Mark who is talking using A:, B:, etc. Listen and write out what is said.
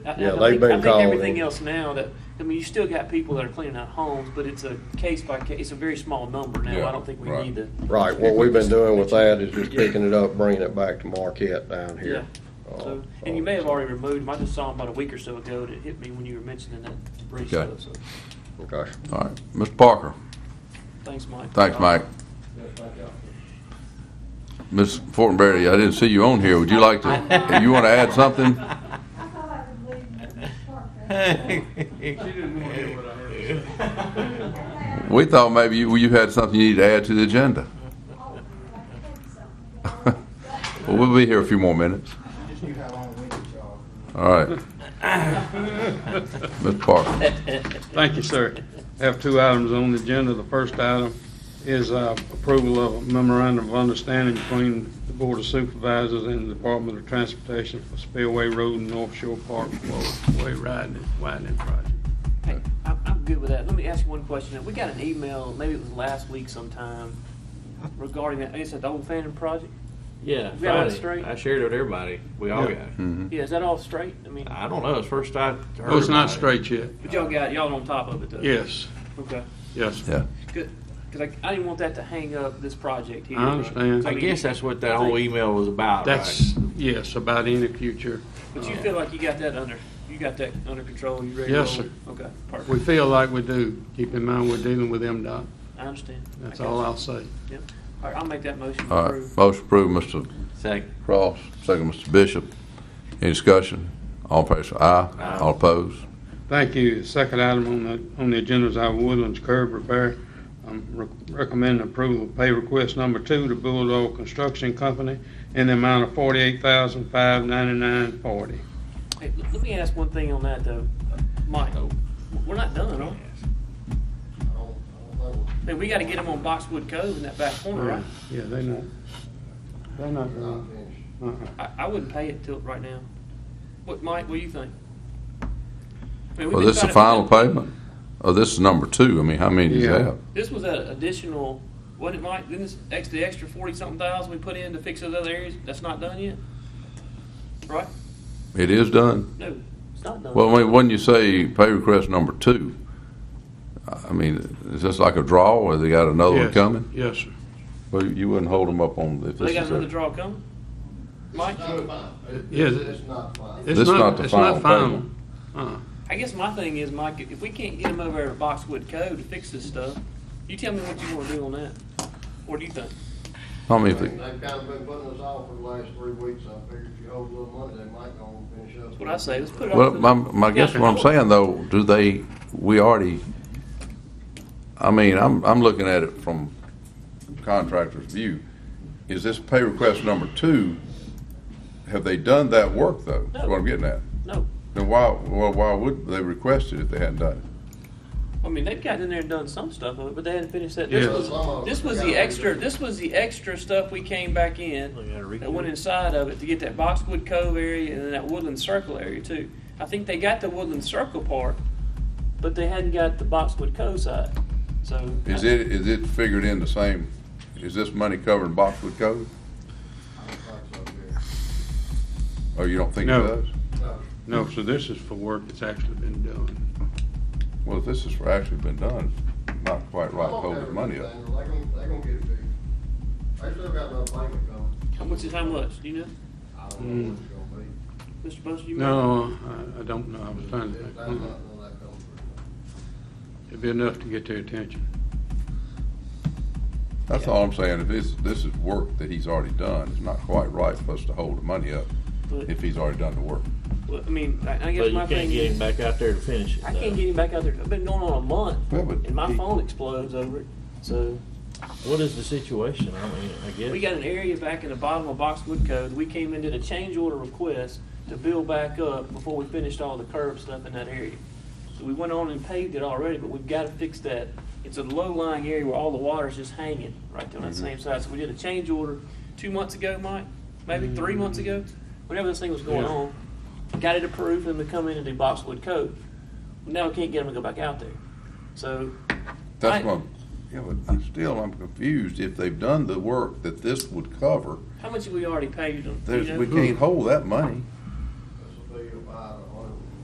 A: I- I
B: Yeah,
A: think-
B: they've been
A: I
B: called
A: think everything
B: in.
A: else now that, I mean, you still got people that are cleaning out homes, but it's a case by case, it's a very small number now.
C: Yeah,
A: I don't think we
C: right.
A: need to.
B: Right, what we've been doing with that is just picking it up, bringing it back to Marquette down
A: Yeah.
B: here.
A: So,
B: Uh,
A: and you may have already removed them. I just saw them about a week or so ago and it hit me when you were mentioning that debris
C: Okay.
A: stuff. So,
B: Okay.
C: All right, Mr. Parker,
A: thanks, Mike.
C: thanks, Mike. Ms. Fortenberry, I didn't see you on here, would you like to, you want to add something?
D: I thought I could leave Mrs. Parker.
E: She
C: We thought maybe you, you had something you need to add to the agenda.
D: Oh, I think so.
C: Well, we'll be here a few more minutes.
E: just knew how long winded y'all.
C: All right. Mr. Parker,
F: Thank you, sir. I Have two items on the agenda. The first item is uh, approval of a memorandum of understanding between the Board of Supervisors and the Department of Transportation for Spillway Road and North Shore Park Way Widening widening Project.
A: Hey, I'm, I'm good with that. Let me ask you one question. We got an email, maybe it was last week sometime, regarding that, it's at the Old Fannin project?
G: Yeah,
A: We got it
G: Friday.
A: straight?
G: I shared it with everybody. We all got it.
C: Mm-hmm.
A: Yeah, is that all straight? I mean,
G: I don't know. It's first I heard.
F: Oh, Hmm. it's
G: about
F: not
G: it.
F: straight yet.
A: but y'all got, y'all on top of it though?
F: Yes,
A: Okay.
F: yes.
C: yeah.
A: Good, because I, I didn't want that to hang up this project here.
F: I understand.
G: I
A: mean,
G: guess that's what that whole email was about.
F: That's,
G: right?
F: yes, about in the future.
A: But you feel like you got that under, you got that under control, you ready? to
F: Yes,
A: roll?
F: sir.
A: Okay,
F: We
A: perfect.
F: feel like we do. Keep in mind, we're dealing with MDOT.
A: I understand. I
F: That's
A: got
F: all
A: you.
F: I'll say.
A: Yep. All right, I'll make that motion to
C: All right,
A: approve.
C: motion approved, Mr.
G: second.
C: Cross, second, Mr. Bishop. Any discussion? All in favor, say aye. All opposed?
F: Thank you. The Second item on the, on the agenda is our Woodlands curb repair. I'm re- recommending approval of pay request number two to Bulldog Construction Company in the amount of forty-eight thousand, five ninety-nine, forty.
A: Hey, l- Let me ask one thing on that though. Mike, we're not done, are we? Hey, we got to get them on Boxwood Cove in that back corner, right?
F: Yeah, they not, they not going. Uh-uh.
A: I, I wouldn't pay it till, right now. What, Mike, what do you think? I mean, we've
C: Well,
A: been
C: this is the
A: trying to-
C: final payment? Oh, this is number two. I mean, how many do you
F: Yeah.
C: have?
A: This was an additional, wasn't it, Mike? Didn't this, ex- the extra forty-something thousand we put in to fix those other areas, that's not done yet? Right?
C: It is done.
A: No, it's not done.
C: Well, I mean, when you say pay request number two, I mean, is this like a draw or they got another one
F: Yes,
C: Oh, coming?
F: Yes, sir.
C: Well, you wouldn't hold them up on if this
A: They got
C: is
A: another
C: a.
A: draw coming? Mike?
F: Yes, it-
E: not fine.
F: it's
C: This not
F: not,
C: the
F: it's
C: final
F: not final. Uh-uh.
A: I guess my thing is, Mike, if we can't get them over there to Boxwood Cove to fix this stuff, you tell me what you wanna do on that. What do you think?
C: I mean, if
B: They've
C: they-
B: kind of been putting us off for the last three weeks. I figured if you hold a little money, they might go and finish up.
A: That's what I say, let's put it
C: well,
A: off.
C: my, my guess what I'm saying though, do they, we already, I mean, I'm, I'm looking at it from contractor's view. Is this pay request number two, have they done that work though? That's what I'm getting at.
A: No,
C: Then why, well, why would they request it if they hadn't done it?
A: I mean, they've gotten in there and done some stuff of it, but they hadn't finished that.
F: Yeah.
A: This was, this was the extra, this was the extra stuff we came back in
G: Look, I gotta read
A: that went
G: it.
A: inside of it to get that Boxwood Cove area and then that Woodland Circle area too. I think they got the Woodland Circle part, but they hadn't got the Boxwood Cove side, so.
C: Is it, is it figured in the same, is this money covering Boxwood Cove? Or Oh, you don't think it
F: No.
C: does?
F: No, so this is for work that's actually been done.
C: Well, if this is for actually been done, it's not quite right to hold the money up.
E: They gonna, they gonna get it fixed. They still got no payment coming.
A: How much is how much, do you know?
E: I don't know what it's gonna be.
A: Mr. Buster, you? remember?
F: No, I, I don't know. I
C: Mm.
F: was trying to
E: If
F: think.
E: that's
F: Uh-uh.
E: not gonna come through.
F: It'd be enough to get their attention.
C: That's all I'm saying, if this, this is work that he's already done, it's not quite right for us to hold the money up
A: But-
C: if he's already done the work.
A: Well, I mean, I I
G: But
A: guess
G: you
A: my
G: can't get
A: thing
G: him
A: is,
G: back out there to finish it.
A: I
G: though.
A: can't get him back out there. I've been going on a month,
C: Well, but
A: and my
C: he-
A: phone explodes over it. So
G: What is the situation? I mean, I guess.
A: we got an area back in the bottom of Boxwood Cove. We came in did a change order request to build back up before we finished all the curb stuff in that area. So we went on and paved it already, but we've got to fix that. It's a low-lying area where all the water's just hanging right there on that same side. So we did a change order two months ago, Mike, maybe three months ago, whenever this thing was going
F: Yeah.
A: on. Got it approved for them to come in and do Boxwood Cove. Now we can't get them to go back out there. So
C: That's
A: I-
C: what, I'm- yeah, but I'm still, I'm confused, if they've done the work that this would cover,
A: How much have we already paid them?
C: there's,
A: you know?
C: we can't hold that money.
E: This will be about